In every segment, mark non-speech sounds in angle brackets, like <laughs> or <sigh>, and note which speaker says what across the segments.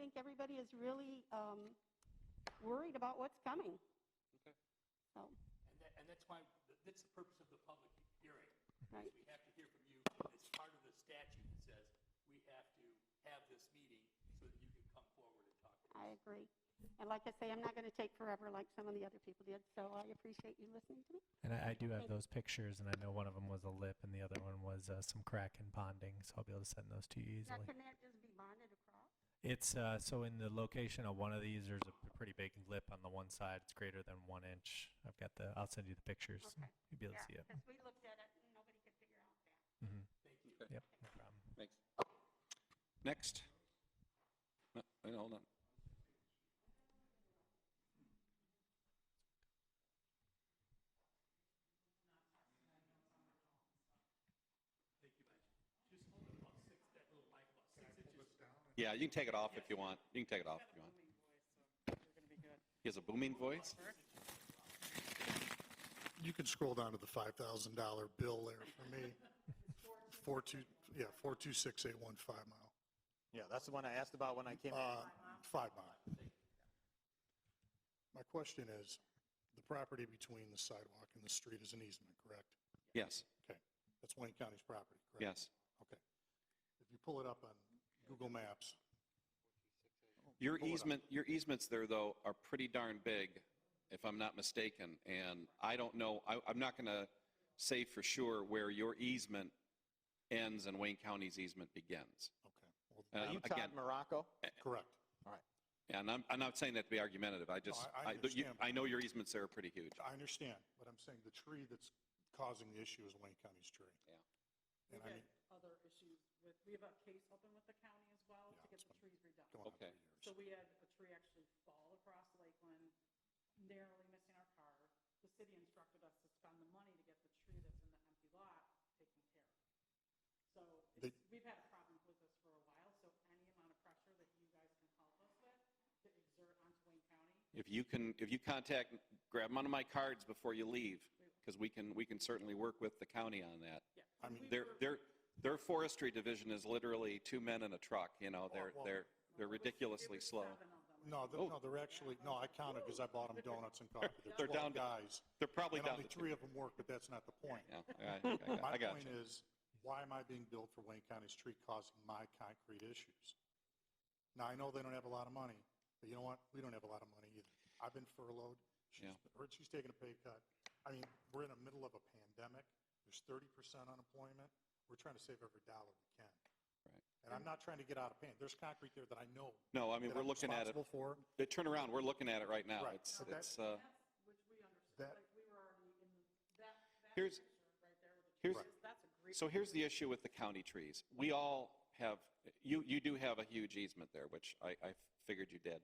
Speaker 1: think everybody is really um, worried about what's coming.
Speaker 2: Okay.
Speaker 1: So,
Speaker 3: And that, and that's why, that's the purpose of the public hearing.
Speaker 1: Right.
Speaker 3: Is we have to hear from you. It's part of the statute that says we have to have this meeting so that you can come forward and talk to us.
Speaker 1: I agree. And like I say, I'm not going to take forever like some of the other people did, so I appreciate you listening to me.
Speaker 4: And I, I do have
Speaker 1: Thank-
Speaker 4: those pictures, and I know one of them was a lip, and the other one was uh, some crack and bonding. So I'll be able to send those to you
Speaker 1: Now, can
Speaker 4: easily.
Speaker 1: that just be bonded across?
Speaker 4: It's uh, so in the location of one of these, there's a p- pretty big lip on the one side. It's greater than one inch. I've got the. I'll send you the pictures.
Speaker 1: Okay.
Speaker 4: You'll be able to see it.
Speaker 1: Because we looked at it and nobody could figure out that.
Speaker 4: hmm
Speaker 2: Okay.
Speaker 4: Yep, no problem.
Speaker 2: Thanks. Next. No, wait, hold on. Yeah, you can take it off if you want. You can take it off if you want. He has a booming voice?
Speaker 5: You can scroll down to the $5,000 bill there for me. Four two, yeah, 426815 mile.
Speaker 6: Yeah, that's the one I asked about when I came in.
Speaker 5: Uh, Five mile. My question is, the property between the sidewalk and the street is an easement, correct?
Speaker 2: Yes,
Speaker 5: Okay, that's Wayne County's property, correct?
Speaker 2: yes.
Speaker 5: Okay. If you pull it up on Google Maps,
Speaker 2: Your
Speaker 5: Hold on.
Speaker 2: easement, your easements there, though, are pretty darn big, if I'm not mistaken. And I don't know, I, I'm not going to say for sure where your easement ends and Wayne County's easement begins.
Speaker 5: okay, well,
Speaker 6: Are
Speaker 2: Um,
Speaker 6: you Todd
Speaker 2: again-
Speaker 6: Morocco?
Speaker 5: correct.
Speaker 2: And I'm, I'm not saying that to be argumentative. I just, I,
Speaker 5: I- I
Speaker 2: but you-
Speaker 5: understand.
Speaker 2: I know your easements there are pretty huge.
Speaker 5: I understand, but I'm saying the tree that's causing the issue is Wayne County's tree.
Speaker 2: Yeah.
Speaker 5: And
Speaker 7: We've
Speaker 5: I mean,
Speaker 7: had other issues with, we have a case open with the county as well
Speaker 5: Yeah,
Speaker 7: to get
Speaker 5: it's
Speaker 7: the trees redone.
Speaker 5: going on
Speaker 2: Okay.
Speaker 5: three years.
Speaker 7: So we had a tree actually fall across Lakeland, narrowly missing our car. The city instructed us to spend the money to get the tree that's in the empty lot taken care of. So
Speaker 5: They-
Speaker 7: it's- we've had a problem with this for a while, so any amount of pressure that you guys can help us with to exert onto Wayne County,
Speaker 2: If you can, if you contact, grab one of my cards before you leave, because we can, we can certainly work with the county on that.
Speaker 7: yeah.
Speaker 5: I mean-
Speaker 2: Their, their, their forestry division is literally two men in a truck, you know, they're,
Speaker 5: Oh, well-
Speaker 2: they're, they're ridiculously slow.
Speaker 5: No, they're,
Speaker 2: Oh.
Speaker 5: no, they're actually, no, I counted because I bought them donuts and coffee.
Speaker 2: They're down
Speaker 5: 12
Speaker 2: to-
Speaker 5: guys.
Speaker 2: They're probably
Speaker 5: And
Speaker 2: down
Speaker 5: only
Speaker 2: to
Speaker 5: three of them work, but that's not the point.
Speaker 2: Yeah, I- I- I got- I
Speaker 5: <laughs> My
Speaker 2: got
Speaker 5: point
Speaker 2: you.
Speaker 5: is, why am I being billed for Wayne County's tree causing my concrete issues? Now, I know they don't have a lot of money, but you know what? We don't have a lot of money either. I've been furloughed. She's, her- she's taking a pay cut. I mean, we're in the middle of a pandemic. There's 30% unemployment. We're trying to save every dollar we can.
Speaker 2: Right.
Speaker 5: And I'm not trying to get out of pain. There's concrete there that I know
Speaker 2: No, I mean,
Speaker 5: that
Speaker 2: we're
Speaker 5: I'm
Speaker 2: looking at it,
Speaker 5: responsible for.
Speaker 2: they turn around, we're looking at it right now.
Speaker 5: Right,
Speaker 2: It's,
Speaker 5: okay.
Speaker 2: it's, uh,
Speaker 7: Which we understood,
Speaker 5: That-
Speaker 7: like, we were already in, that, that
Speaker 2: Here's-
Speaker 7: picture right there with the
Speaker 2: here's-
Speaker 7: trees, that's a great.
Speaker 2: so here's the issue with the county trees. We all have, you, you do have a huge easement there, which I, I figured you did.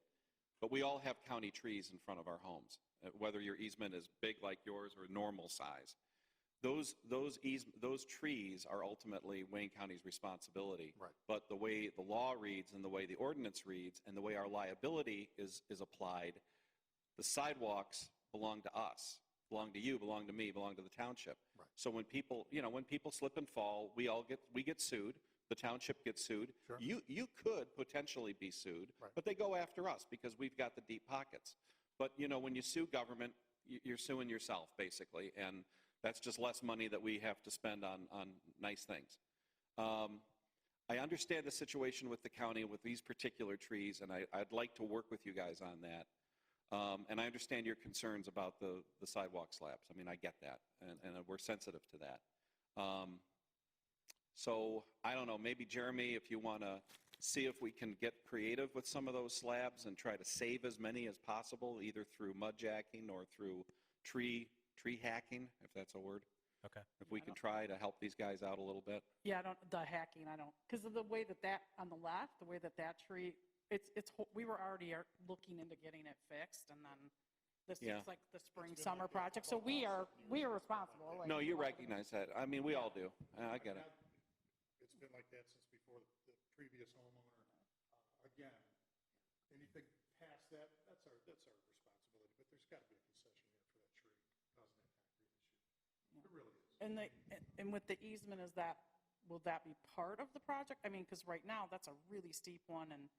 Speaker 2: But we all have county trees in front of our homes, uh, whether your easement is big like yours or normal size. Those, those eas, those trees are ultimately Wayne County's responsibility.
Speaker 5: Right.
Speaker 2: But the way the law reads and the way the ordinance reads and the way our liability is, is applied, the sidewalks belong to us, belong to you, belong to me, belong to the township.
Speaker 5: Right.
Speaker 2: So when people, you know, when people slip and fall, we all get, we get sued, the township gets sued.
Speaker 5: Sure.
Speaker 2: You, you could potentially be sued,
Speaker 5: Right.
Speaker 2: but they go after us because we've got the deep pockets. But, you know, when you sue government, y- you're suing yourself, basically, and that's just less money that we have to spend on, on nice things. Um, I understand the situation with the county with these particular trees, and I, I'd like to work with you guys on that. Um, And I understand your concerns about the, the sidewalk slabs. I mean, I get that, and, and we're sensitive to that. Um, So I don't know, maybe Jeremy, if you want to see if we can get creative with some of those slabs and try to save as many as possible, either through mud jacking or through tree, tree hacking, if that's a word.
Speaker 4: Okay.
Speaker 2: If we can try to help these guys out a little bit.
Speaker 7: Yeah, I don't, the hacking, I don't, because of the way that that, on the left, the way that that tree, it's, it's, ho- we were already are looking into getting it fixed, and then this
Speaker 2: Yeah.
Speaker 7: is like the spring, summer project, so we are, we are responsible. like,
Speaker 2: No, you
Speaker 7: we're all gonna-
Speaker 2: recognize that. I mean, we all do. Uh, I get it.
Speaker 5: It's been like that since before the- the previous homeowner. Uh, Again, anything past that, that's our, that's our responsibility, but there's got to be a concession here for that tree causing that concrete issue. It really is.
Speaker 7: And the, and with the easement, is that, will that be part of the project? I mean, because right now, that's a really steep one, and